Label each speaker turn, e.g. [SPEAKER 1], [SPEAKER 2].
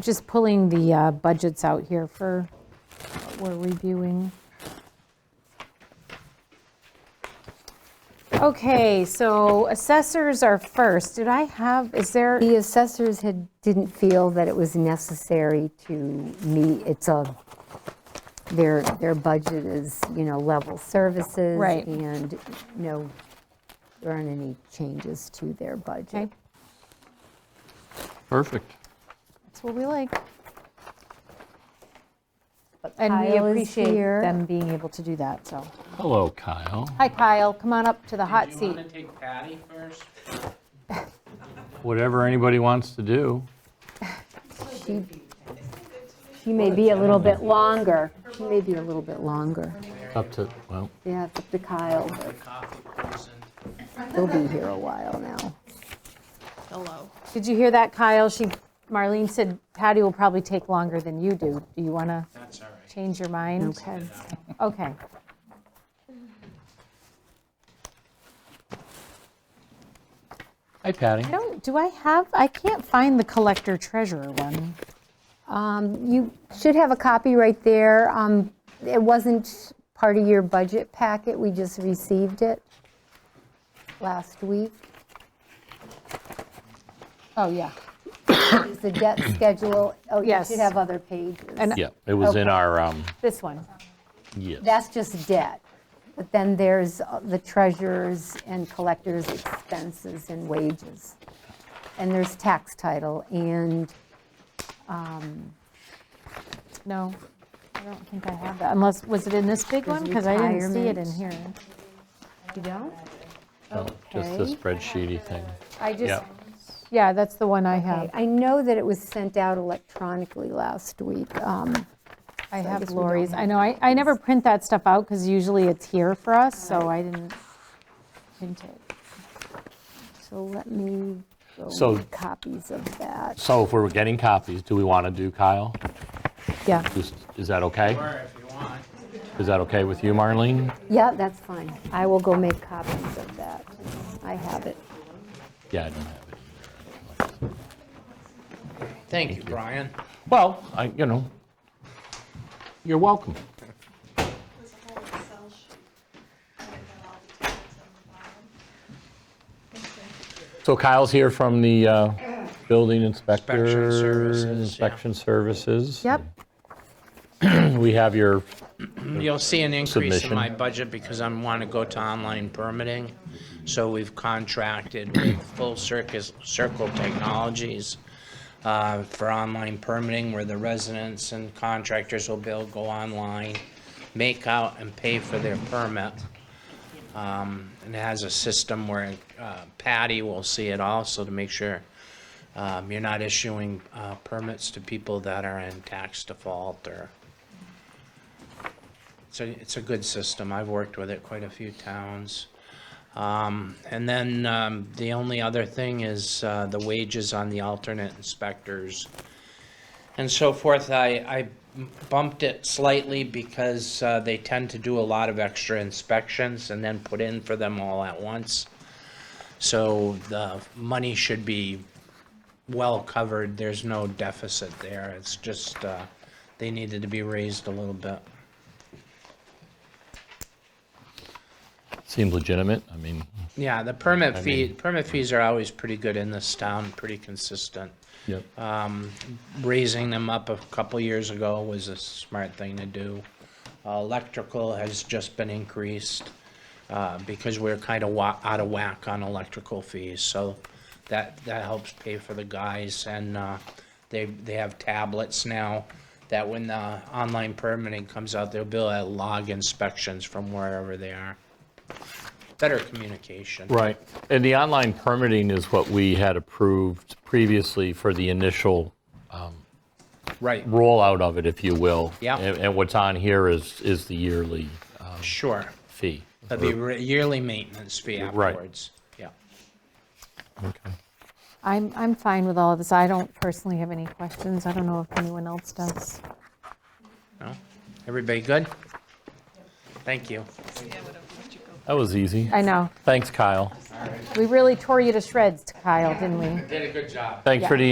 [SPEAKER 1] Just pulling the uh, budgets out here for what we're reviewing. Okay, so assessors are first. Did I have, is there,
[SPEAKER 2] The assessors had, didn't feel that it was necessary to meet, it's a, their, their budget is, you know, level services.
[SPEAKER 1] Right.
[SPEAKER 2] And no, there aren't any changes to their budget.
[SPEAKER 1] okay,
[SPEAKER 3] Perfect.
[SPEAKER 1] that's what we like.
[SPEAKER 2] But
[SPEAKER 1] And we
[SPEAKER 2] Kyle is
[SPEAKER 1] appreciate
[SPEAKER 2] here.
[SPEAKER 1] them being able to do that, so.
[SPEAKER 3] Hello, Kyle.
[SPEAKER 1] Hi Kyle, come on up to the hot
[SPEAKER 4] Do you
[SPEAKER 1] seat.
[SPEAKER 4] want to take Patty first?
[SPEAKER 3] Whatever anybody wants to do.
[SPEAKER 2] She- She may be a little bit longer. She may be a little bit longer.
[SPEAKER 3] Up to, well,
[SPEAKER 2] Yeah, it's up to Kyle, but
[SPEAKER 4] The coffee person.
[SPEAKER 2] he'll be here a while now.
[SPEAKER 5] Hello.
[SPEAKER 1] Did you hear that, Kyle? She, Marlene said Patty will probably take longer than you do. Do you want to
[SPEAKER 4] That's all right.
[SPEAKER 1] change your mind?
[SPEAKER 2] Okay.
[SPEAKER 1] Okay.
[SPEAKER 3] hi, Patty.
[SPEAKER 1] I don't, do I have, I can't find the collector treasurer one.
[SPEAKER 2] Um, You should have a copy right there. Um, It wasn't part of your budget packet, we just received it last week.
[SPEAKER 1] Oh, yeah.
[SPEAKER 2] It's the debt schedule. Oh, you
[SPEAKER 1] Yes.
[SPEAKER 2] should have other pages.
[SPEAKER 1] And-
[SPEAKER 3] Yeah, it was in
[SPEAKER 2] Okay.
[SPEAKER 3] our, um,
[SPEAKER 1] This one.
[SPEAKER 3] yes.
[SPEAKER 2] That's just debt. But then there's uh, the treasurer's and collector's expenses and wages. And there's tax title and
[SPEAKER 1] No, I don't think I have that, unless, was it in this big one? Because I didn't see it in here.
[SPEAKER 2] You don't?
[SPEAKER 3] No, Just the
[SPEAKER 2] okay.
[SPEAKER 3] spreadsheety thing.
[SPEAKER 2] I just,
[SPEAKER 3] Yeah.
[SPEAKER 1] Yeah, that's the one I
[SPEAKER 2] I
[SPEAKER 1] have.
[SPEAKER 2] um, I know that it was sent out electronically last week. Um,
[SPEAKER 1] I
[SPEAKER 2] guess
[SPEAKER 1] have
[SPEAKER 2] we don't
[SPEAKER 1] Lori's. I
[SPEAKER 2] have
[SPEAKER 1] know, I, I never print that stuff out because usually it's here for us, so I didn't print it.
[SPEAKER 2] So let me go
[SPEAKER 3] So-
[SPEAKER 2] make copies of that.
[SPEAKER 3] So if we're getting copies, do we want to do Kyle?
[SPEAKER 1] Yeah.
[SPEAKER 3] Just, is that okay?
[SPEAKER 4] Or if you want.
[SPEAKER 3] Is that okay with you, Marlene?
[SPEAKER 2] Yeah, that's fine. I will go make copies of that. I have it.
[SPEAKER 3] Yeah, I don't have it.
[SPEAKER 4] Thank you, Brian.
[SPEAKER 3] Well, I, you know, you're welcome.
[SPEAKER 6] was a whole Excel sheet. And it had all the tables on the bottom.
[SPEAKER 3] So Kyle's here from the uh, building inspector.
[SPEAKER 4] services, yeah.
[SPEAKER 3] Inspection services.
[SPEAKER 1] Yep,
[SPEAKER 3] We have your,
[SPEAKER 4] You'll see an increase in
[SPEAKER 3] Submission.
[SPEAKER 4] my budget because I want to go to online permitting. So we've contracted with Full Circus, Circle Technologies uh, for online permitting where the residents and contractors will be able to go online, make out and pay for their permit. Um, And it has a system where uh, Patty will see it also to make sure um, you're not issuing uh, permits to people that are in tax default or it's a, it's a good system. I've worked with it quite a few towns. Um, and then, um, the only other thing is, uh, the wages on the alternate inspectors and so forth. I, I bumped it slightly because, uh, they tend to do a lot of extra inspections and then put in for them all at once. So the money should be well covered. There's no deficit there. It's just, uh, they needed to be raised a little bit.
[SPEAKER 3] seems legitimate, I mean,
[SPEAKER 4] Yeah, the permit fee, permit fees are always pretty good in this town, pretty consistent.
[SPEAKER 3] yep.
[SPEAKER 4] Uh, Raising them up a couple years ago was a smart thing to do. Uh, Electrical has just been increased uh, because we're kind of wa- out of whack on electrical fees, so that, that helps pay for the guys. And uh, they, they have tablets now that when the online permitting comes out, they'll be able to log inspections from wherever they are. Better communication.
[SPEAKER 3] Right. And the online permitting is what we had approved previously for the initial
[SPEAKER 4] Right.
[SPEAKER 3] rollout of it, if you will.
[SPEAKER 4] Yeah.
[SPEAKER 3] And and what's on here is, is the yearly uh,
[SPEAKER 4] Sure.
[SPEAKER 3] fee.
[SPEAKER 4] That'd be re- yearly maintenance fee
[SPEAKER 3] Uh, Right.
[SPEAKER 4] afterwards. Yeah.
[SPEAKER 3] Okay.
[SPEAKER 1] I'm, I'm fine with all of this. I don't personally have any questions. I don't know if anyone else does.
[SPEAKER 4] No? Everybody good? Thank you.
[SPEAKER 3] That was easy.
[SPEAKER 1] I know,
[SPEAKER 3] Thanks, Kyle.
[SPEAKER 1] we really tore you to shreds, Kyle, didn't we?
[SPEAKER 4] Did a good job.
[SPEAKER 3] Thanks for the